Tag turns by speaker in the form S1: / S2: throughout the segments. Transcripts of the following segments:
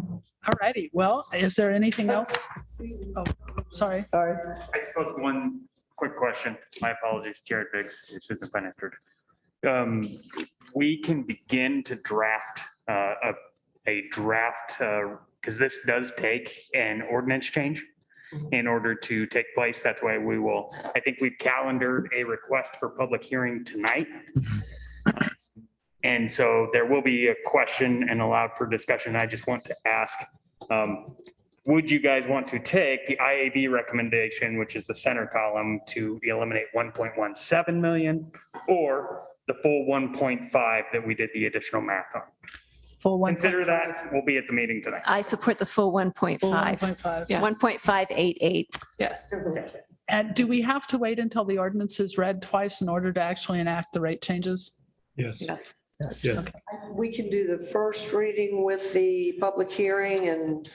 S1: All righty. Well, is there anything else? Oh, sorry.
S2: Sorry.
S3: I suppose one quick question, my apologies, Jared Biggs, Assistant Finance Director. Um, We can begin to draft uh, a, a draft, because this does take an ordinance change in order to take place. That's why we will, I think we've calendared a request for public hearing tonight. And so there will be a question and allowed for discussion. I just want to ask, um, would you guys want to take the IAB recommendation, which is the center column, to eliminate 1.17 million or the full 1.5 that we did the additional math on?
S1: Full one.
S3: Consider that. We'll be at the meeting tonight.
S4: I support the full 1.5,
S1: Full 1.5.
S4: Yeah, 1.588.
S1: Yes. And do we have to wait until the ordinance is read twice in order to actually enact the rate changes?
S5: Yes,
S4: Yes.
S5: yes.
S2: We can do the first reading with the public hearing and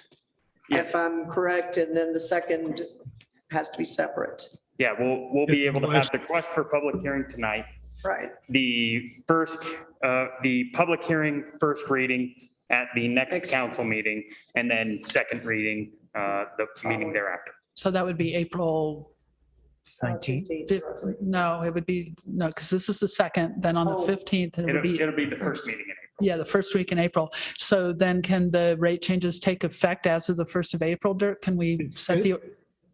S2: if I'm correct, and then the second has to be separate.
S3: Yeah, we'll, we'll be able to have the request for public hearing tonight.
S2: Right.
S3: The first, uh, the public hearing, first reading at the next
S2: Next.
S3: council meeting, and then second reading, uh, the meeting thereafter.
S1: So that would be April,
S6: Nineteen.
S1: fif- no, it would be, no, because this is the second, then on the
S2: Oh.
S1: 15th, it would
S3: It'll,
S1: be,
S3: it'll be the first meeting in April.
S1: yeah, the first week in April. So then can the rate changes take effect as of the 1st of April, Dirk? Can we set the,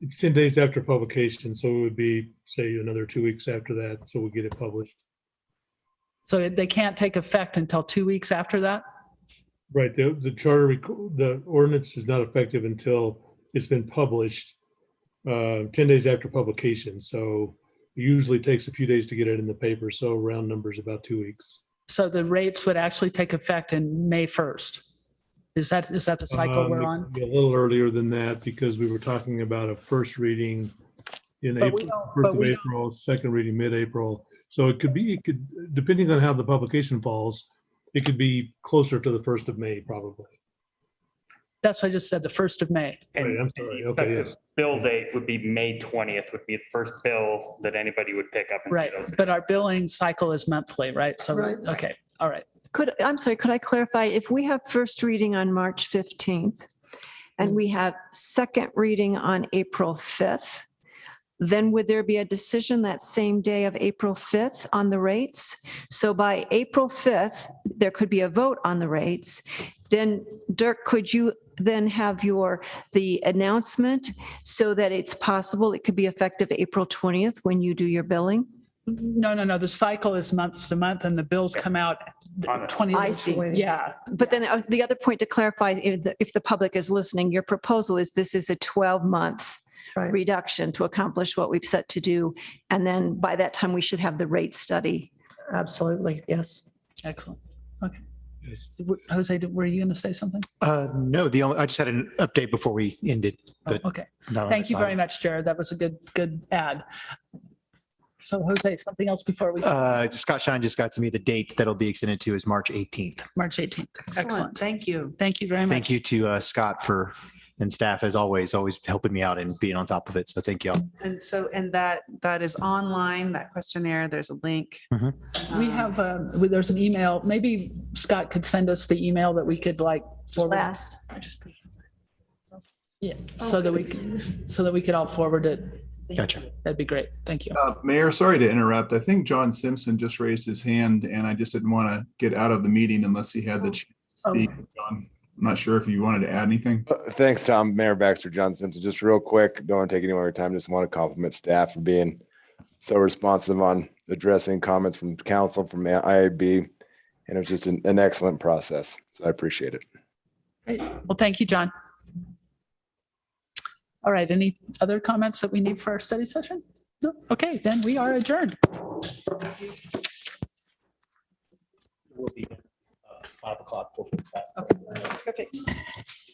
S5: It's 10 days after publication, so it would be, say, another two weeks after that, so we get it published.
S1: so they can't take effect until two weeks after that?
S5: Right, the, the charter, rec- the ordinance is not effective until it's been published uh, 10 days after publication, so it usually takes a few days to get it in the paper, so round numbers about two weeks.
S1: So the rates would actually take effect in May 1st? Is that, is that the cycle
S5: Um,
S1: we're
S5: it
S1: on?
S5: could be A little earlier than that, because we were talking about a first reading in
S1: But we
S5: April,
S1: don't-
S5: first
S1: but
S5: of
S1: we don't-
S5: April, second reading mid-April. So it could be, it could, depending on how the publication falls, it could be closer to the first of May, probably.
S1: That's what I just said, the 1st of May.
S5: Right,
S3: And
S5: Oh, I'm sorry, okay, yes.
S3: Bill date would be May 20th would be the first bill that anybody would pick up. and see
S1: Right,
S3: those.
S1: but our billing cycle is monthly, right? So,
S2: Right.
S1: okay, all right.
S4: Could, I'm sorry, could I clarify? If we have first reading on March 15th and we have second reading on April 5th, then would there be a decision that same day of April 5th on the rates? So by April 5th, there could be a vote on the rates. Then Dirk, could you then have your, the announcement so that it's possible it could be effective April 20th when you do your billing?
S1: No, no, no, the cycle is months to month and the bills come out th-
S3: On it.
S1: 20.
S4: I see.
S1: Yeah,
S4: But then uh, the other point to clarify, if the, if the public is listening, your proposal is this is a 12-month
S2: Right.
S4: reduction to accomplish what we've set to do. And then by that time, we should have the rate study.
S2: Absolutely, yes.
S1: excellent. Okay. W- Jose, did- were you going to say something?
S6: Uh, no, the only, I just had an update before we ended.
S1: Oh,
S6: But-
S1: Okay,
S6: not on
S1: thank
S6: this
S1: you very
S6: item.
S1: much, Jared. That was a good, good ad. So Jose, something else before we,
S6: Uh, Scott Shine just got to me the date that'll be extended to is March 18th.
S1: March 18th. Excellent.
S7: Thank you.
S1: Thank you very much.
S6: Thank you to uh, Scott for, and staff as always, always helping me out and being on top of it. So thank y'all.
S7: And so, and that, that is online, that questionnaire, there's a link.
S6: Mhm.
S1: We
S7: Um,
S1: have, um, we- there's an email, maybe Scott could send us the email that we could like. forward.
S4: Last.
S1: Yeah, so that we, c- so that we could all forward it.
S6: Gotcha.
S1: That'd be great. Thank you.
S8: Uh, Mayor, sorry to interrupt. I think John Simpson just raised his hand and I just didn't want to get out of the meeting unless he had the chance to
S1: Oh.
S8: speak. John, I'm not sure if you wanted to add anything.
S9: Uh, Thanks, Tom. Mayor Baxter Johnson. So just real quick, don't want to take any more of your time. Just want to compliment staff for being so responsive on addressing comments from council, from IAB. And it was just an, an excellent process. So I appreciate it.
S1: Great. Well, thank you, John. All right, any other comments that we need for our study session? No? Okay, then we are adjourned.
S6: Five o'clock.
S1: Perfect.